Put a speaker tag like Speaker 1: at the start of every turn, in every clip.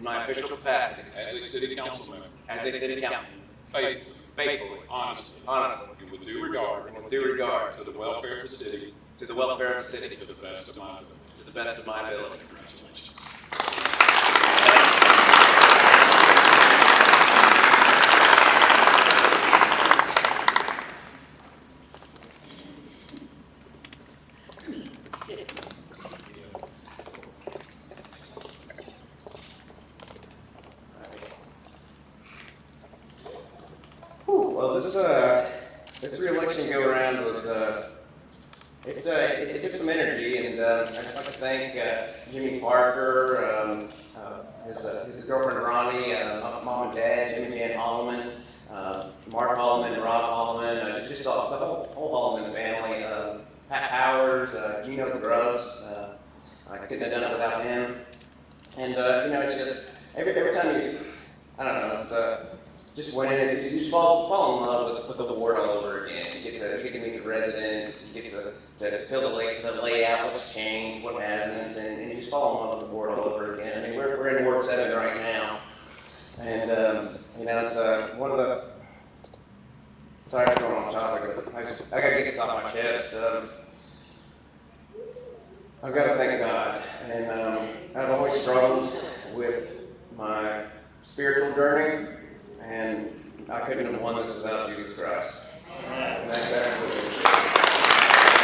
Speaker 1: my official capacity
Speaker 2: as a city council member,
Speaker 1: as a city councilman,
Speaker 2: faithfully,
Speaker 1: faithfully,
Speaker 2: honestly,
Speaker 1: honestly,
Speaker 2: and with due regard
Speaker 1: and with due regard
Speaker 2: to the welfare of the city,
Speaker 1: to the welfare of the city,
Speaker 2: to the best of my ability.
Speaker 1: to the best of my ability.
Speaker 2: Congratulations.
Speaker 3: Whew, well, this uh, this re-election go around was uh, it, uh, it, it took some energy, and uh, I just like to thank uh, Jimmy Parker, um, uh, his, uh, his girlfriend Ronnie, uh, my mom and dad, Jimmy and Jan Holloman, uh, Mark Holloman, Rob Holloman, uh, just, just all, the whole, whole Holloman family, um, Pat Powers, uh, Gino Gross. Uh, I couldn't have done it without him. And uh, you know, it's just every, every time you, I don't know, it's uh, just when it, you just fall fall in love with, with the ward all over again. You get to you get to meet the residents, you get to, to feel the, lay, the layout, what's changed, what hasn't, and, and you just fall in love with the ward all over again. I mean, we're, we're in Ward Seven right now, and um, you know, it's uh, one of the sorry I'm going off topic, but I, just, I gotta get this off my chest. Um, I've got to thank God, and um, I've always struggled with my spiritual journey, and I couldn't have won this without Jesus Christ. And that's absolutely.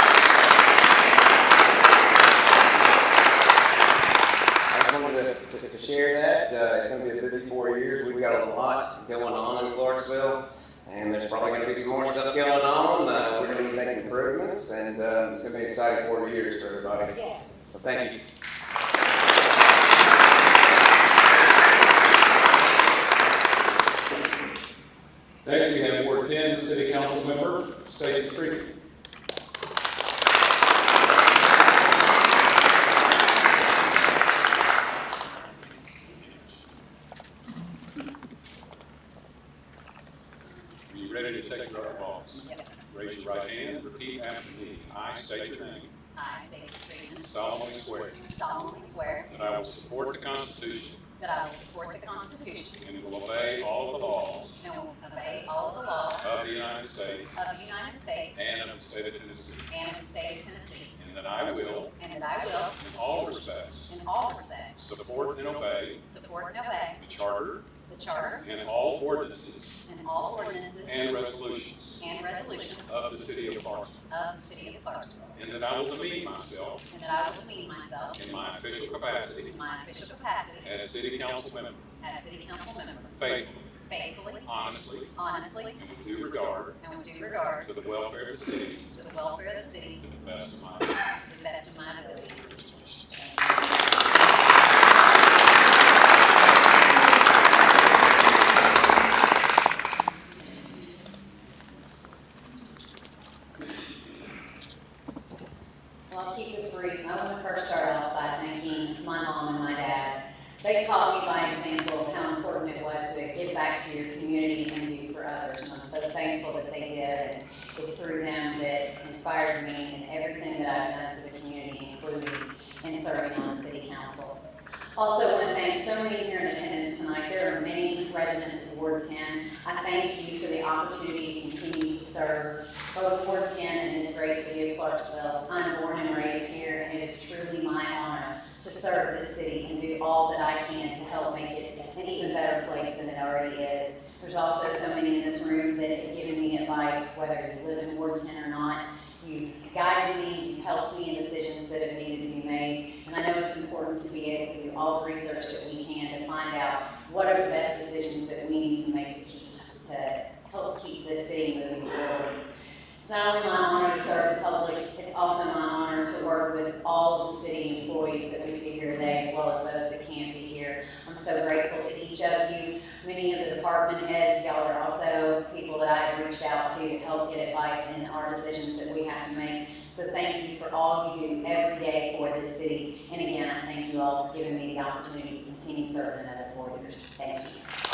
Speaker 3: I just wanted to, to, to share that. Uh, it's going to be a busy four years. We've got a lot going on in Clarksville, and there's probably going to be some more stuff going on. Uh, we're going to be making improvements, and um, it's going to be an exciting four years for everybody. So thank you.
Speaker 2: Next, we have Ward 10, City Council Member Stacy Street. Are you ready to take your oath?
Speaker 4: Yes.
Speaker 2: Raise your right hand, repeat after me. I state your name,
Speaker 4: I, Stacy Freeman,
Speaker 2: solemnly swear
Speaker 4: solemnly swear
Speaker 2: that I will support the Constitution
Speaker 4: that I will support the Constitution
Speaker 2: and will obey all the laws
Speaker 4: and will obey all the laws
Speaker 2: of the United States
Speaker 4: of the United States
Speaker 2: and of the state of Tennessee,
Speaker 4: and of the state of Tennessee,
Speaker 2: and that I will,
Speaker 4: and that I will,
Speaker 2: in all respects,
Speaker 4: in all respects,
Speaker 2: support and obey
Speaker 4: support and obey
Speaker 2: the Charter
Speaker 4: the Charter
Speaker 2: and all ordinances
Speaker 4: and all ordinances
Speaker 2: and resolutions
Speaker 4: and resolutions
Speaker 2: of the City of Clarksville,
Speaker 4: of the city of Clarksville,
Speaker 2: and that I will demean myself
Speaker 4: and that I will demean myself
Speaker 2: in my official capacity
Speaker 4: in my official capacity
Speaker 2: as City Council Member
Speaker 4: as city council member
Speaker 2: faithfully,
Speaker 4: faithfully,
Speaker 2: honestly,
Speaker 4: honestly,
Speaker 2: and with due regard
Speaker 4: and with due regard
Speaker 2: to the welfare of the city
Speaker 4: to the welfare of the city
Speaker 2: to the best of my ability.
Speaker 4: to the best of my ability.
Speaker 2: Congratulations.
Speaker 4: Well, I'll keep this brief. I want to first start off by thanking my mom and my dad. They taught me by example how important it was to give back to your community and do for others. And I'm so thankful that they did. And it's through them that inspired me and everything that I've done for the community, including in serving on the city council. Also, want to thank so many here in attendance tonight. There are many residents of Ward 10. I thank you for the opportunity to continue to serve both Ward 10 and this great city of Clarksville. I'm born and raised here, and it is truly my honor to serve this city and do all that I can to help make it an even better place than it already is. There's also so many in this room that have given me advice, whether you live in Ward 10 or not. You've guided me, you've helped me in decisions that have needed to be made, and I know it's important to be able to do all the research that we can to find out what are the best decisions that we need to make to keep, to help keep this city moving forward. It's not only my honor to serve the public, it's also my honor to work with all of the city employees that we see here today, as well as those that can't be here. I'm so grateful to each of you. Many of the department heads, y'all are also people that I have reached out to to help get advice in our decisions that we have to make. So thank you for all you do every day for this city. And again, I thank you all for giving me the opportunity to continue serving another four years. Thank you.
Speaker 2: uh,